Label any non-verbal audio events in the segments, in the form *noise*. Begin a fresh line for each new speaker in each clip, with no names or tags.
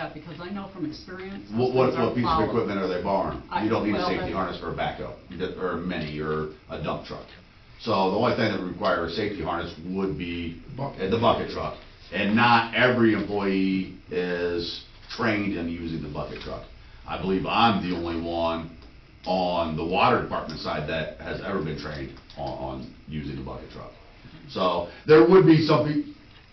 up, because I know from experience.
What, what,
those are
what piece of
followed.
equipment are they borrowing?
I-
You don't need a
well,
safety
that's-
harness for a backhoe, you don't- or a mini, or a dump truck. So the only thing that would require a safety harness would be
Bucket.
the bucket truck. And not every employee is trained in using the bucket truck. I believe I'm the only one on the water department side that has ever been trained on, on using the bucket truck. So there would be something,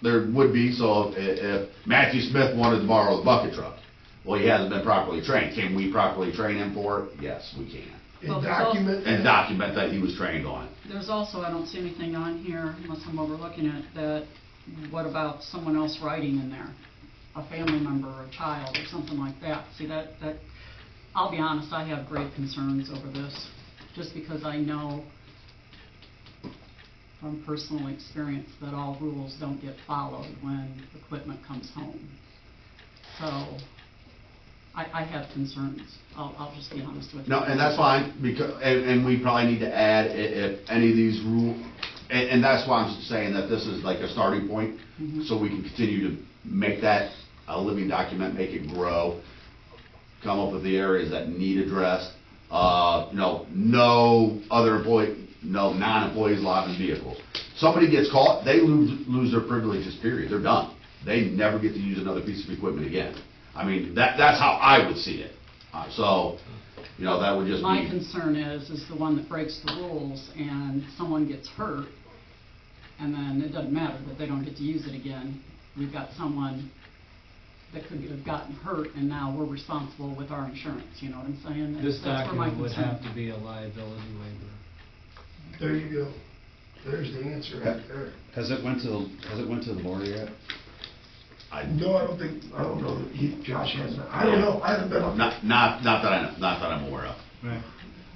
there would be, so if, if Matthew Smith wanted to borrow the bucket truck, well, he hasn't been properly trained. Can we properly train him for it? Yes, we can.
Well,
And
there's also-
document.
And document that he was trained on.
There's also, I don't see anything on here, unless I'm overlooking it, that, what about someone else riding in there? A family member or a child or something like that. See, that, that, I'll be honest, I have great concerns over this, just because I know from personal experience that all rules don't get followed when equipment comes home. So, I, I have concerns. I'll, I'll just be honest with you.
No, and that's fine, because, and, and we probably need to add i- if any of these rule, and, and that's why I'm saying that this is like a starting point, so we can continue to make that a living document, make it grow, come up with the areas that need addressed, uh, you know, no other employee, no non-employees live in vehicles. Somebody gets caught, they lose, lose their privileges, period, they're done. They never get to use another piece of equipment again. I mean, that, that's how I would see it. Uh, So, you know, that would just
My
be,
concern is, is the one that breaks the rules and someone gets hurt, and then it doesn't matter that they don't get to use it again. We've got someone that could have gotten hurt, and now we're responsible with our insurance, you know what I'm saying? That's-
This
that's where my
document would
concern-
have to be a liability waiver.
There you go. There's the answer right there.
Has it went to, the has it went to the board yet?
I,
No, I don't think, I don't know that he, Josh hasn't, I don't know, I haven't been on that.
not, not, not that I know, not that I'm aware of.
Right.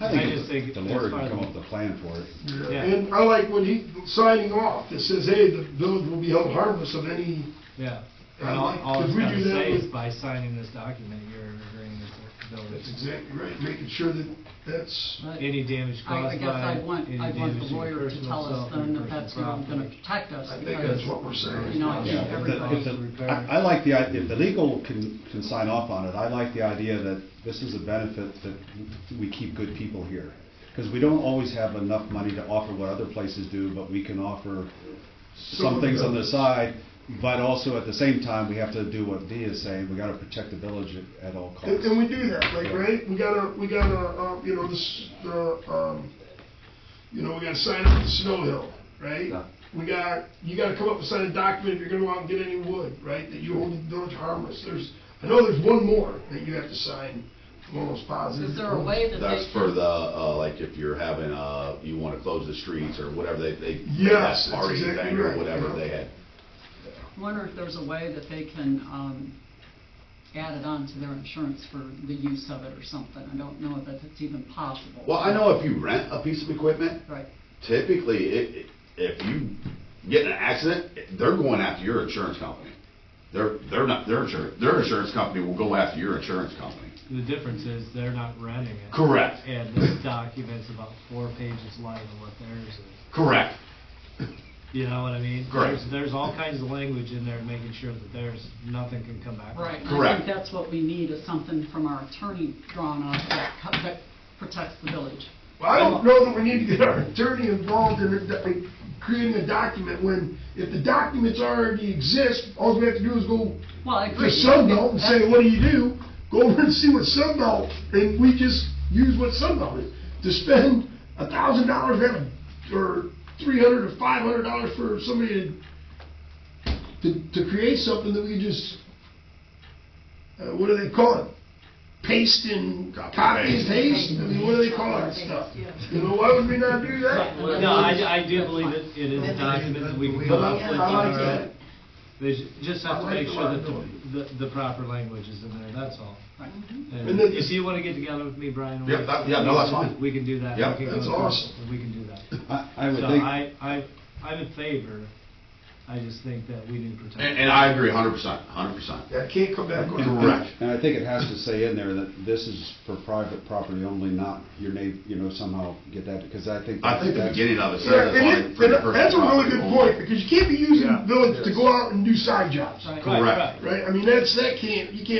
I
I
think
just think
the
that's
board
fine.
can come up with a plan for it.
Yeah.
And I like when he, signing off, it says, hey, the village will be held harmless of any,
Yeah.
And
And
I
all,
like-
all
could
it's
we
gonna
do that
say is
with-
by signing this document, you're agreeing to the
that's
village.
exactly right, making sure that that's,
But
Any damage
I- I
caused
guess
by,
I'd want,
any
I'd want
damage
the
to your
lawyer to
personal
tell us
self and
then
your
that that's
personal
who gonna
property.
protect us.
I think
because
that's what we're saying.
You know, I
Yeah,
think
if the-
everybody,
if the-
I I like the, i- if the legal can, can sign off on it, I like the idea that this is a benefit that we keep good people here. Because we don't always have enough money to offer what other places do, but we can offer some
Some
things on the
of the-
side. But also, at the same time, we have to do what Dee is saying, we gotta protect the village at- at all
and, and
costs.
we do that, like, right, we got a, we got a, um, you know, this, the, um, you know, we gotta sign up for the snow hill, right?
Yeah.
We got, you gotta come up and sign a document if you're gonna go out and get any wood, right, that you hold the village harmless, there's, I know there's one more that you have to sign, I'm almost positive.
is there a way that they?
That's for
can-
the, uh, like, if you're having, uh, you wanna close the streets or whatever, they, they. they have
Yes, that's
party
exactly
thing or
right,
Whatever
yeah.
they had.
wonder if there's a way that they can um, add it on to their insurance for the use of it or something. I don't know that it's even possible.
Well, I know if you rent a piece of equipment,
Right.
typically, it, if you get in an accident, they're going after your insurance company. They're, they're not, their insurance, their insurance company will go after your insurance company.
The difference is they're not renting it.
Correct,
And this document's about four pages light of what theirs is.
correct.
You know what I mean?
Correct.
There's, there's all kinds of language in there making sure that there's, nothing can come back. on it.
Right. and I
Correct.
think that's what we need is something from our attorney drawn up that co- that protects the village.
Well, I don't know that we need to get our attorney involved in, it- in creating a document when, if the documents already exist, all we have to do is go
Well, I
to
agree.
Sunbelt and say,
That's-
what do you do? Go over and see what Sunbelt, and we just use what Sunbelt is. To spend a thousand dollars or three hundred or five hundred dollars for somebody to, to, to create something that we just, uh, what do they call it? Paste and
Copy and
copy
paste.
and paste, I mean, what do they call that stuff? You know, why would we not do that?
Well, No, I, I do believe it, it is a document that we can
But
come
I,
up with.
I like
all right.
that.
They ju- just
I
have to
like
make
the
sure that the,
liability.
the the proper language is in there, that's all.
Right.
And
And then-
if you wanna get together with me, Brian. we-
Yeah, that- yeah, no, that's fine.
We can do that. We
Yeah,
can go
that's
through it,
awesome.
We can do that.
*laughs*
I, I would
So
think.
I, I, I'm in favor, I just think that we need to protect.
And, and I agree hundred percent, hundred percent.
That can't come back on.
And-
the-
Correct.
And I think it has to say in there that this is for private property only, not your name, you know, somehow get that, because I think.
I think the
that's-
beginning of it says.
Yeah,
like,
and it,
for the
and that's a really good
personal
point, because you can't be using
Yeah.
village to go out and do side jobs,
Right.
Right,
Correct.
right.
right? I mean, that's, that can't, you can't